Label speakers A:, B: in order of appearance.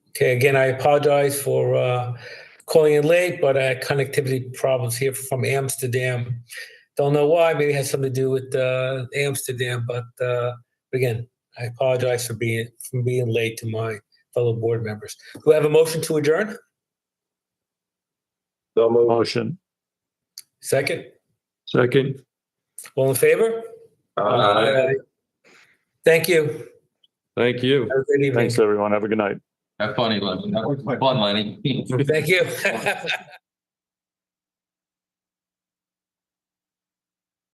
A: Okay, again, I apologize for uh, calling in late, but I had connectivity problems here from Amsterdam. Don't know why, maybe it has something to do with uh, Amsterdam, but uh, again, I apologize for being, for being late to my fellow board members. Do I have a motion to adjourn?
B: So moved.
C: Motion.
A: Second,
C: Second.
A: all in favor? Uh,
B: Aye.
A: Thank you.
C: Thank you.
A: Have a good evening.
C: Thanks, everyone. Have a good night.
D: Have fun, Lenny. Have fun, Lenny.
A: Thank you.